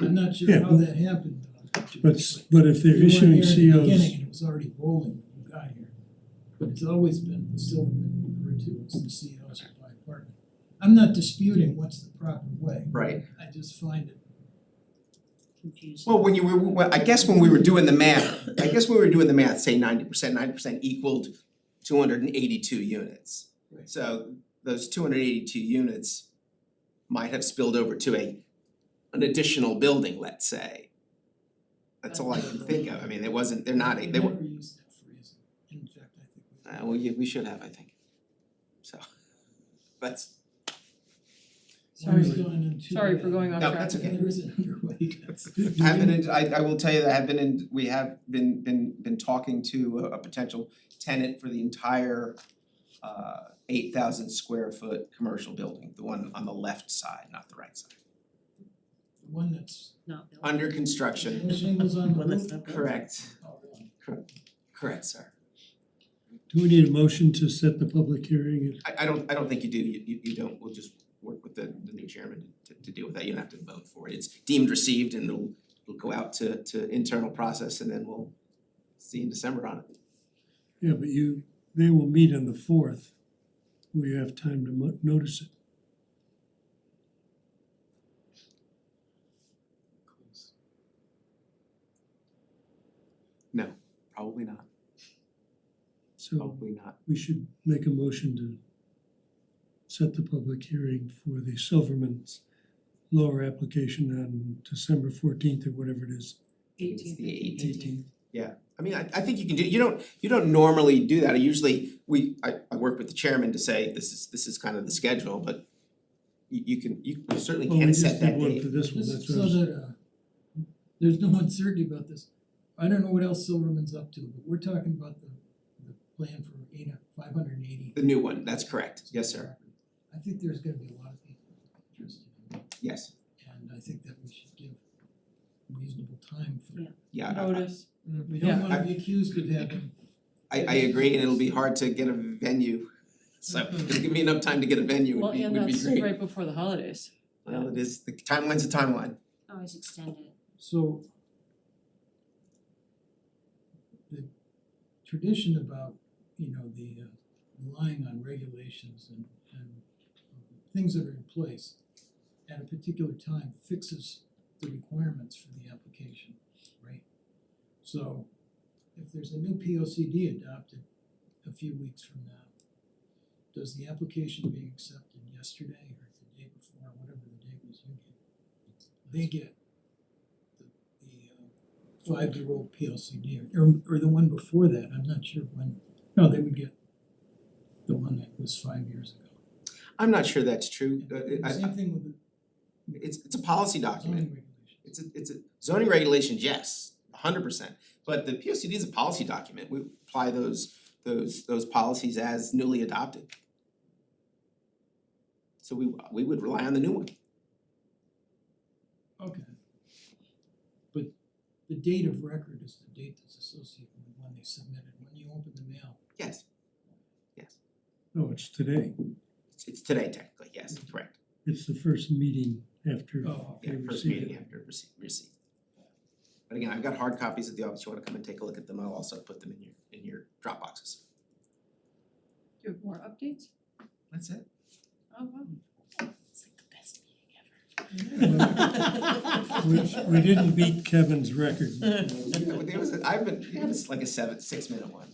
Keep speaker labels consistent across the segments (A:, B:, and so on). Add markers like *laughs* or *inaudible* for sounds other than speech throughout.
A: I'm not sure
B: Yeah,
A: how
B: but-
A: that happened. though, to be
B: But, s-
A: honest.
B: but if they're
A: You weren't
B: issuing
A: here at the beginning
B: COs,
A: and it was already rolling when you got here. But it's always been, it's still been referred to as the COs or by partner. I'm not disputing what's the proper way,
C: Right.
A: I just find it,
D: confusing.
C: Well, when you were, well, I guess when we were doing the math, I guess when we were doing the math, say ninety percent, ninety percent equaled two hundred and eighty-two units.
A: Right.
C: So those two hundred and eighty-two units might have spilled over to a an additional building, let's say. That's all I can think of. I mean, it wasn't, they're not, a-
A: I
C: they were,
A: never used that phrase, in fact, I think we.
C: uh, well, yeah, we should have, I think. So, *laughs* that's,
A: One is
B: Sorry.
A: going in two
D: Sorry
A: way.
D: for going off
C: No,
D: track.
C: that's okay.
A: The other is an underway.
C: *laughs* I have been, in- I I will tell you that I've been in, we have been been been talking to a a potential tenant for the entire uh eight thousand square foot commercial building, the one on the left side, not the right side.
A: The one that's,
D: Not built.
C: Under construction,
A: no shingles on the
D: One that's
A: roof.
D: not built.
C: correct,
A: Oh, really?
C: correct, sir.
B: do we need a motion to set the public hearing? at-
C: I I don't, I don't think you do, you you you don't, we'll just work with the the new chairman to to deal with that, you don't have to vote for it. It's deemed received and it'll it'll go out to to internal process and then we'll see in December on it.
B: Yeah, but you, they will meet on the fourth. We have time to mo- notice it.
C: No, probably not,
B: So
C: probably not.
B: we should make a motion to set the public hearing for the Silverman's lower application on December fourteenth or whatever it is.
C: It's the 18th.
B: Eighteenth.
C: I mean, I I think you can do, you don't, you don't normally do that, I usually, we, I I work with the chairman to say, this is, this is kind of the schedule, but you you can, you certainly
B: Well, Oh, we
C: can set
B: just did
C: that
B: one
C: date,
B: for this one,
A: This-
B: that's what I
A: so
B: was-
A: that, uh, there's no *laughs* uncertainty about this. I don't know what else Silverman's up to, but we're talking about the, the plan for eight, five hundred and eighty.
C: the new one, that's correct, yes, sir,
A: I think there's gonna be a lot of people interested in it,
C: yes,
A: and I think that we should give reasonable time for.
D: Yeah.
C: yeah. I- I-
D: Notice,
A: We don't
D: Yeah,
A: wanna
C: I-
A: be accused of having,
C: I I agree, and it'll be hard to get a venue, so
B: Mm-hmm.
C: if you give me enough time to get a venue
D: well,
C: would be
D: and
C: would be
D: that's
C: great.
D: right before the holidays.
C: Well, it is, the timeline's a timeline,
D: Always extended.
A: so. The tradition about, you know, the uh, relying on regulations and and things that are in place at a particular time fixes the requirements for the application, right? So if there's a new P O C D adopted a few weeks from now, does the application being accepted yesterday or the day before, whatever the date was you get, they get the the uh five-year-old P O C D or or the one before that, I'm not sure when, no, they would get the one that was five years ago.
C: I'm not sure that's true, Uh, it- I
A: Same thing with the
C: it's it's a policy document,
A: zoning regulation.
C: It's a, it's a zoning regulations, yes, hundred percent, but the P O C D is a policy document, we apply those those those policies as newly adopted. So we we would rely on the new one,
A: Okay. But the date of record is the date that's associated with when they submitted, when you open the mail.
C: yes,
B: No, Oh, it's today.
C: it's it's today technically, yes, correct,
B: It's the first meeting after
A: Oh,
B: they
C: yeah, first
B: receive
C: meeting
B: it.
C: after receipt receipt. But again, I've got hard copies at the office, you wanna come and take a look at them, I'll also put them in your in your drop boxes.
D: Do you have more updates?
C: That's it.
D: Oh, wow.
B: We we didn't beat Kevin's record.
C: There was, a- I've been, you had a- like a seven, six minute one,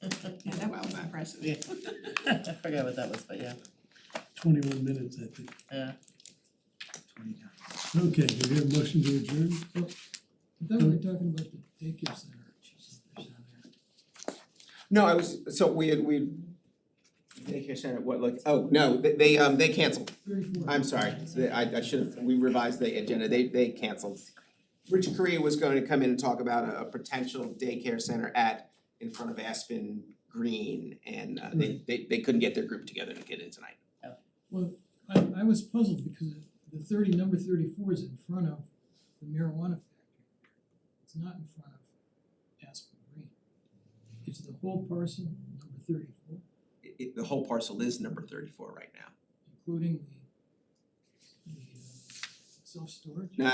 E: Yeah, that was
C: Wow, that-
E: impressive. Yeah. I forgot what that was, but yeah,
B: Twenty-one minutes, I think.
E: yeah.
B: Okay, do we have a motion to adjourn?
A: I thought we were talking about the daycare center. or something down there.
C: No, I was, so we had, we daycare center, what, like, oh, no, they they um they canceled,
A: Thirty-four.
C: I'm sorry, They- I I should have, we revised the agenda, they they canceled. Richard Korea was going to come in and talk about a a potential daycare center at in front of Aspen Green and uh they they they couldn't get their group together to get in tonight.
A: Well, I I was puzzled because the thirty, number thirty-four is in front of the marijuana factory. It's not in front of Aspen Green. It's the whole parcel, number thirty-four,
C: It it- the whole parcel is number thirty four right now.
A: including the the uh self-storage.
C: No,